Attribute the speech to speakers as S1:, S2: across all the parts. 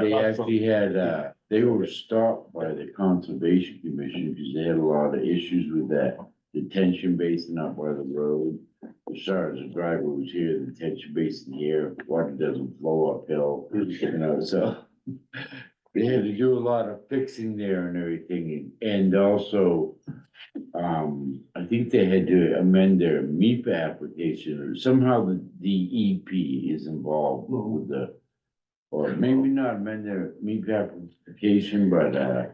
S1: They actually had, uh, they were stopped by the conservation commission because they had a lot of issues with that detention basin up by the road. As far as the driver was here, the detention basin here, water doesn't flow uphill, you know, so. They had to do a lot of fixing there and everything and also, um, I think they had to amend their MEP application or somehow the DEP is involved with the or maybe not amend their meat application, but, uh,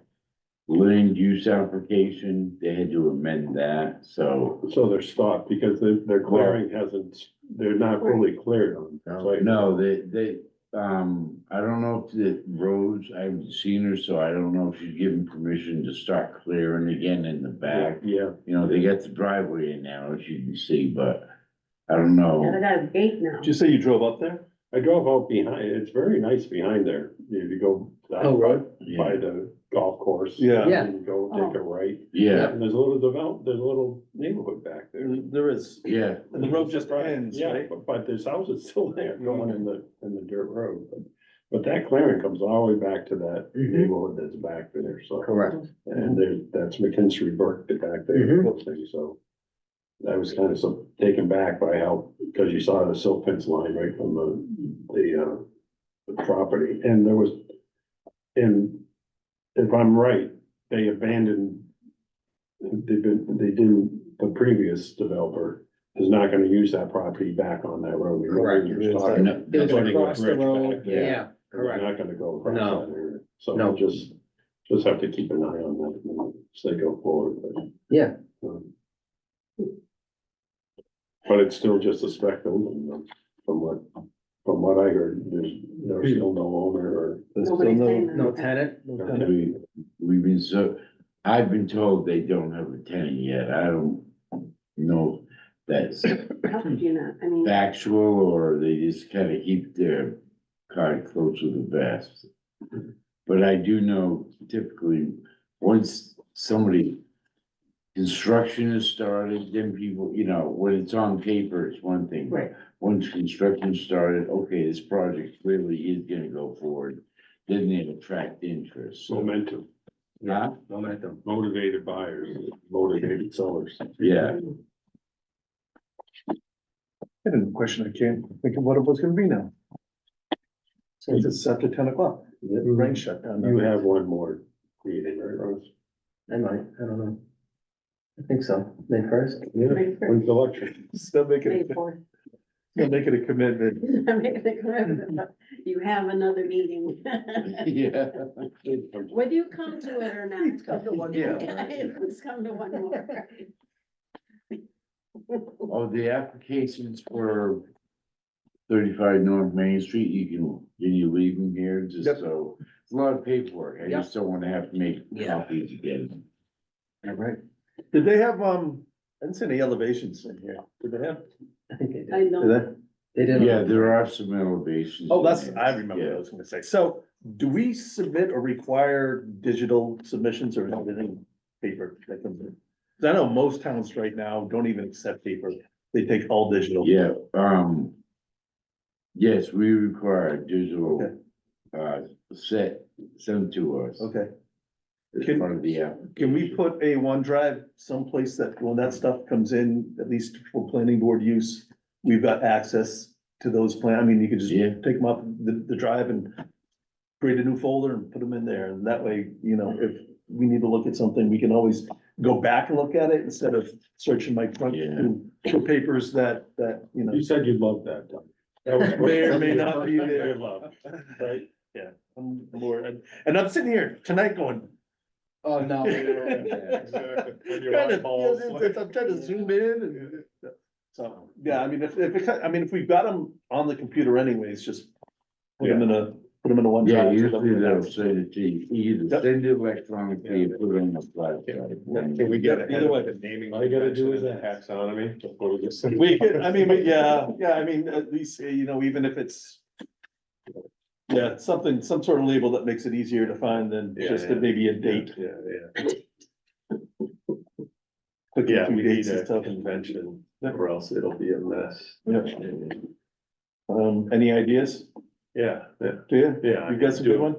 S1: land use application, they had to amend that, so.
S2: So they're stopped because their, their clearing hasn't, they're not fully cleared on. site.
S1: No, they, they, um, I don't know if the Rose, I haven't seen her, so I don't know if she's given permission to start clearing again in the back.
S2: Yeah,
S1: You know, they got the driveway in now, as you can see, but I don't
S3: And
S1: know.
S3: I got a gate now.
S4: Did you say you drove up there?
S2: I drove out behind, it's very nice behind there, if you go
S4: Oh,
S2: down
S4: right.
S2: by
S1: Yeah,
S2: the golf course.
S4: Yeah.
S3: Yeah.
S2: And go take a right,
S1: yeah,
S2: and there's a little develop, there's a little neighborhood back there.
S4: There is.
S1: yeah,
S4: And the road just ends, Mm-hmm.
S2: Yeah,
S4: right?
S2: but- But this house is still there, going in the, in the dirt road, but, but that clearing comes all the way back to that
S3: Mhm.
S4: Mm-hmm.
S2: neighborhood that's back there, so.
S1: correct.
S2: And there's, that's McKinstry Burke that back
S4: Mm-hmm.
S2: there, thing, so. I was kind of so taken back by how, because you saw the silt fence line right from the, the, uh, the property, and there was, and if I'm right, they abandoned, they've been, they didn't, the previous developer is not gonna use that property back on that road. We know
S5: Correct.
S2: you're
S4: It's
S2: talking-
S1: And that-
S5: It was
S1: that's what they-
S5: across the
S2: bridge
S5: road,
S2: back there.
S5: yeah,
S2: We're
S5: correct.
S2: Not gonna go across
S5: No.
S2: that area, so
S5: No.
S2: we'll just, just have to keep an eye on that as they go forward, but.
S5: Yeah.
S2: um, But it's still just a spec building, um, from what, from what I heard, there's,
S5: Hmm.
S2: there's still no owner or.
S4: There's still
S3: Nobody's saying
S4: no,
S3: that.
S5: No tenant, no tenant.
S1: We, we've been so, I've been told they don't have a tenant yet, I don't know if that's
S3: How could you not? I mean,
S1: factual, or they just kinda keep their card close to the vest. But I do know typically, once somebody, construction is started, then people, you know, when it's on paper, it's one thing.
S3: Right.
S1: Once construction started, okay, this project clearly is gonna go forward, then they attract interest, so,
S2: Momentum,
S1: Huh?
S5: Momentum.
S2: motivated buyers, motivated sellers.
S1: yeah.
S4: I had a question I can't think of what it was gonna be now. Since it's after ten o'clock, the rain shut down.
S2: You have one more meeting, right, Ross?
S5: I might, I don't know. I think so, May first.
S2: Yeah.
S3: May first,
S2: When's the lecture?
S4: Still making,
S3: May
S4: it-
S3: fourth.
S4: still making a commitment.
S3: I'm making a commitment. You have another meeting.
S1: Yeah.
S3: Whether you come to it or not.
S5: Please come to one more.
S3: Please come to one more.
S1: Oh, the applications for thirty-five North Main Street, you can, can you leave them here just
S4: Yep.
S1: so? It's a lot of paperwork. I just don't wanna have to make
S5: Yeah.
S1: copies again.
S5: All right.
S4: Did they have, um, I didn't see any elevations in here. Did they have?
S5: I think they did.
S3: I
S4: Did
S3: know.
S4: they?
S5: They did.
S1: Yeah, there are some elevations.
S4: Oh, that's,
S1: in there.
S4: I remember what I
S1: Yeah.
S4: was gonna say. So do we submit or require digital submissions or is everything paper that comes in? Cause I know most towns right now don't even accept paper. They take all digital.
S1: Yeah, um. Yes, we require a digital, uh, set, sent to us.
S4: Okay.
S1: As
S4: Can-
S1: part of the app.
S4: Can we put a OneDrive someplace that when that stuff comes in, at least for planning board use, we've got access to those plan, I mean, you could just
S1: Yeah.
S4: take them up the, the drive and create a new folder and put them in there, and that way, you know, if we need to look at something, we can always go back and look at it instead of searching my front
S1: Yeah.
S4: for papers that, that, you know.
S2: You said you'd love that, Tom. That was-
S4: May or may not be there.
S2: Love, right?
S4: Yeah, I'm bored, and- and I'm sitting here tonight going,
S5: Oh, no. we don't.
S2: When your
S4: Trying to-
S2: eyeballs-
S4: yeah, it's- I'm trying to zoom in and. uh, So, yeah, I mean, if, if, it- I mean, if we've got them on the computer anyways, just. Put them in a, put them in a one.
S1: Yeah,
S4: drive.
S1: usually they'll send it to you, either
S4: Yep.
S1: send it electronically, or put it on the flash drive.
S5: Can we get
S4: it?
S2: Either way, all you gotta do is a taxonomy. before we get-
S4: We could, I mean, we- yeah, yeah, I mean, at least, you know, even if it's. Yeah, something, some sort of label that makes it easier to find than
S2: Yeah,
S4: just
S2: yeah.
S4: maybe a date.
S2: Yeah, yeah.
S4: clicking
S2: Yeah,
S4: through
S2: we
S4: dates
S2: need
S4: and
S2: a
S4: stuff.
S2: convention, or else it'll be a mess.
S4: Yeah. Um, any ideas?
S2: Yeah, yeah,
S4: Do you?
S2: yeah. I
S4: You got some
S2: do.
S4: good one?